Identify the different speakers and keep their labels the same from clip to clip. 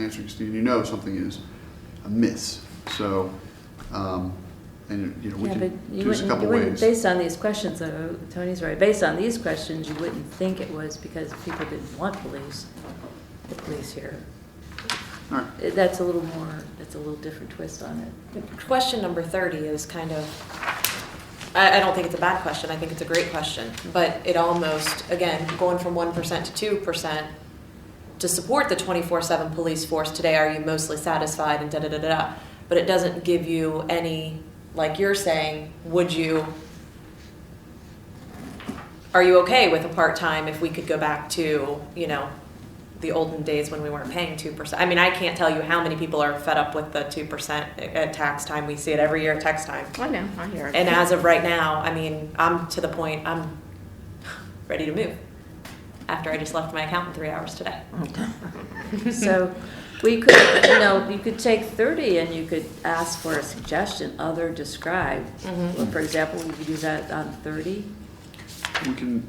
Speaker 1: answering Steve, you know something is amiss. So, um, and, you know, we
Speaker 2: Yeah, but
Speaker 1: can
Speaker 2: you
Speaker 1: do this a
Speaker 2: wouldn't, you
Speaker 1: couple ways.
Speaker 2: wouldn't, based on these questions, though, Tony's right, based on these questions, you wouldn't think it was because people didn't want police, the police here.
Speaker 1: All right.
Speaker 2: Uh, That's a little more, that's a little different twist on it.
Speaker 3: Question number 30 is kind of, I, I don't think it's a bad question, I think it's a great question, but it almost, again, going from 1% to 2%, to support the 24/7 police force today, are you mostly satisfied and da-da-da-da? But it doesn't give you any, like you're saying, would you, are you okay with a part-time if we could go back to, you know, the olden days when we weren't paying 2%? I mean, I can't tell you how many people are fed up with the 2% at tax time. We see it every year at tax time.
Speaker 4: I know, I hear it.
Speaker 3: And as of right now, I mean, I'm to the point, I'm ready to move after I just left my account in three hours today.
Speaker 2: So we could, you know, you could take thirty and you could ask for a suggestion, other described.
Speaker 3: Mhm.
Speaker 4: Mm-hmm.
Speaker 2: Well, For example, we could do that on thirty.
Speaker 1: We can,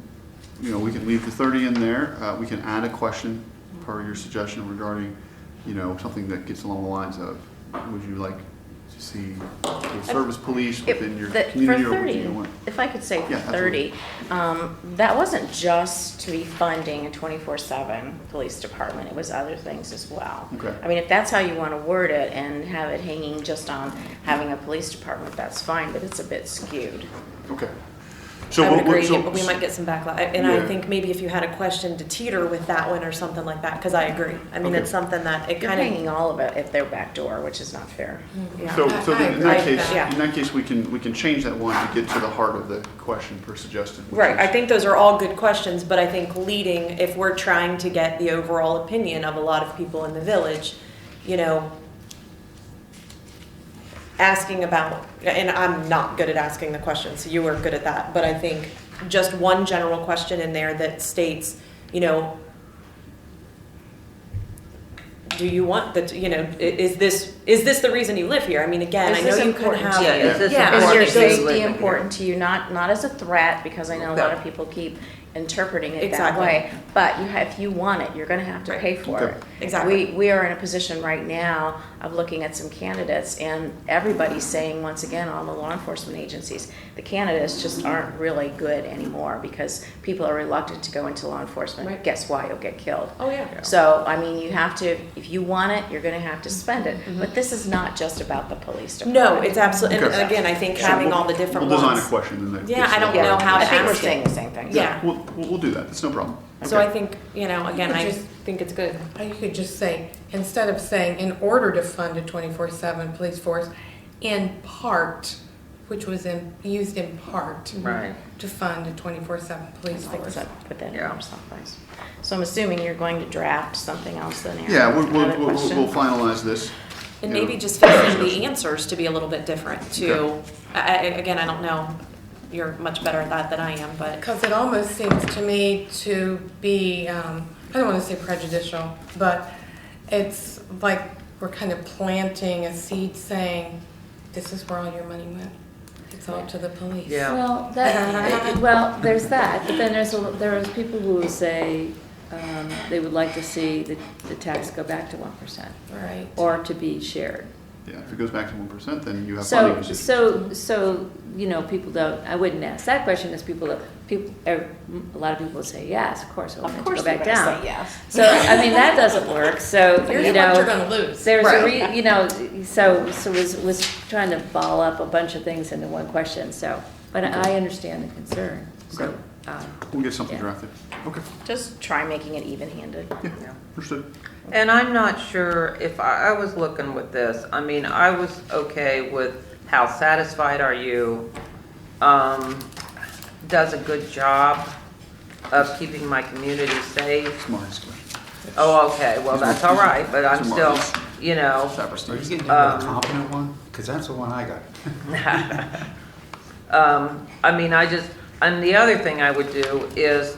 Speaker 1: you know, we can leave the thirty in there, uh, we can add a question per your suggestion regarding, you know, something that gets along the lines of, would you like to see the service police
Speaker 4: If-
Speaker 1: within your
Speaker 4: the-
Speaker 1: community
Speaker 4: for
Speaker 1: or within
Speaker 4: 30,
Speaker 1: your? one?
Speaker 4: If I could say for
Speaker 1: Yeah, absolutely.
Speaker 4: thirty, um, that wasn't just to be funding a twenty-four seven police department, it was other things as well.
Speaker 1: Okay.
Speaker 4: I mean, if that's how you wanna word it and have it hanging just on having a police department, that's fine, but it's a bit skewed.
Speaker 1: Okay. So
Speaker 3: I would
Speaker 1: what- what-
Speaker 3: agree,
Speaker 1: so-
Speaker 3: but we might get some backlash. And I
Speaker 1: Yeah.
Speaker 3: think maybe if you had a question to teeter with that one or something like that, because I agree. I mean,
Speaker 1: Okay.
Speaker 3: it's something that it
Speaker 4: You're
Speaker 3: kind
Speaker 4: hanging
Speaker 3: of,
Speaker 4: all of it if they're backdoor, which is not fair.
Speaker 3: Hmm.
Speaker 4: Yeah.
Speaker 1: So, so then in that
Speaker 3: I-
Speaker 1: case,
Speaker 3: yeah.
Speaker 1: in that case, we can, we can change that one to get to the heart of the question per suggested. which
Speaker 3: right, I
Speaker 1: is-
Speaker 3: think those are all good questions, but I think leading, if we're trying to get the overall opinion of a lot of people in the village, you know, asking about, and I'm not good at asking the questions, so you are good at that, but I think just one general question in there that states, you know, do you want the, you know, i- is this, is this the reason you live here? I mean, again,
Speaker 4: Is
Speaker 3: I
Speaker 4: this
Speaker 3: know you could
Speaker 4: important
Speaker 3: have.
Speaker 4: to you?
Speaker 5: Yeah, is this
Speaker 3: Yeah,
Speaker 4: Is
Speaker 3: I
Speaker 4: your
Speaker 3: think those-
Speaker 5: living
Speaker 4: safety
Speaker 5: here.
Speaker 4: important to you? Not, not as a threat, because I know a lot of
Speaker 5: Okay.
Speaker 4: people keep interpreting it that
Speaker 3: Exactly.
Speaker 4: way. But you, ha- if you want it, you're gonna have to
Speaker 3: Right.
Speaker 4: pay for
Speaker 1: Okay.
Speaker 4: it.
Speaker 3: Exactly.
Speaker 4: We, we are in a position right now of looking at some candidates, and everybody's saying, once again, all the law enforcement agencies, the candidates just aren't really good anymore, because people are reluctant to go into law enforcement.
Speaker 3: Right.
Speaker 4: Guess why? You'll get killed.
Speaker 3: Oh, yeah.
Speaker 4: So, I mean, you have to, if you want it, you're gonna have to spend it. But this is not just about the police department.
Speaker 3: Mm-hmm. No, it's absolutely, and
Speaker 1: Okay.
Speaker 3: again, I think
Speaker 1: So
Speaker 3: having
Speaker 1: we'll-
Speaker 3: all the different
Speaker 1: We'll design a
Speaker 3: ones.
Speaker 1: question and then. that
Speaker 3: Yeah,
Speaker 1: gets
Speaker 3: I
Speaker 1: to the
Speaker 3: don't
Speaker 1: heart
Speaker 3: know
Speaker 1: of the
Speaker 3: how
Speaker 4: I
Speaker 3: to
Speaker 1: question.
Speaker 4: think we're
Speaker 3: ask it.
Speaker 4: saying the same thing.
Speaker 3: Yeah.
Speaker 1: We'll, we'll we'll do that, it's no problem.
Speaker 3: So I
Speaker 1: Okay.
Speaker 3: think, you know, again,
Speaker 6: could
Speaker 3: I
Speaker 6: just-
Speaker 3: think it's good.
Speaker 6: Or you could just say, instead of saying, in order to fund a twenty-four seven police force, in part, which was in, used in part.
Speaker 5: Right.
Speaker 6: To fund a twenty-four seven police
Speaker 4: Like I
Speaker 6: force.
Speaker 4: said, put that in
Speaker 5: Yeah.
Speaker 4: there someplace. So I'm assuming you're going to draft something else then, Erin?
Speaker 1: Yeah, we'll, we'll,
Speaker 4: Another
Speaker 1: we'll
Speaker 4: question?
Speaker 1: we'll finalize this.
Speaker 3: And
Speaker 1: you know,
Speaker 3: maybe just fixing
Speaker 1: discussion.
Speaker 3: the answers to be a little bit different too.
Speaker 1: Okay.
Speaker 3: I, I, again, I don't know, you're much better at that than I am, but
Speaker 6: Because it almost seems to me to be, um, I don't want to say prejudicial, but it's like we're kind of planting a seed saying, this is where all your money went. It's all to the police.
Speaker 5: Yeah.
Speaker 2: Well, that, well, there's that, but then there's, a- there's people who will say, um, they would like to see the, the tax go back to one percent,
Speaker 6: Right.
Speaker 2: or to be shared.
Speaker 1: Yeah, if it goes back to one percent, then you have funding
Speaker 2: So,
Speaker 1: decisions.
Speaker 2: so, so, you know, people don't, I wouldn't ask that question, because people, that- people, er, a lot of people would say, yes, of course, I want it to go back down.
Speaker 4: yes.
Speaker 2: So, I mean, that doesn't work, so,
Speaker 6: Here's
Speaker 2: you
Speaker 6: what
Speaker 2: know.
Speaker 6: you're going to lose.
Speaker 2: There's a
Speaker 5: Right.
Speaker 2: re, you know, so, so was, was trying to ball up a bunch of things into one question, so, but I understand the concern, so,
Speaker 1: Okay.
Speaker 2: um,
Speaker 1: We'll get something
Speaker 2: yeah.
Speaker 1: drafted. Okay,
Speaker 4: Just try making it even-handed.
Speaker 1: yeah, understood.
Speaker 5: And I'm not sure if I, I was looking with this, I mean, I was okay with how satisfied are you? Um, does a good job of keeping my community safe.
Speaker 1: It's Marty's question.
Speaker 5: Oh, okay, well, that's all right, but I'm still, you know,
Speaker 1: Stop or
Speaker 7: Are you
Speaker 1: sneeze.
Speaker 7: getting into
Speaker 5: Um,
Speaker 7: the competent one? Because that's the one I got.
Speaker 5: Um, I mean, I just, and the other thing I would do is,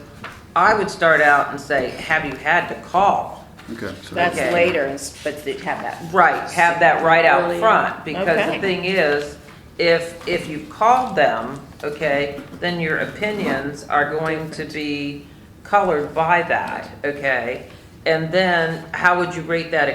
Speaker 5: I would start out and say, have you had to call?
Speaker 1: Okay, so
Speaker 4: That's
Speaker 5: Okay.
Speaker 4: later, and s- but they have that.
Speaker 5: Right, have that right out
Speaker 4: Earlier.
Speaker 5: front, because
Speaker 4: Okay.
Speaker 5: the thing is, if, if you called them, okay, then your opinions are going to be colored by that, okay? And then, how would you rate that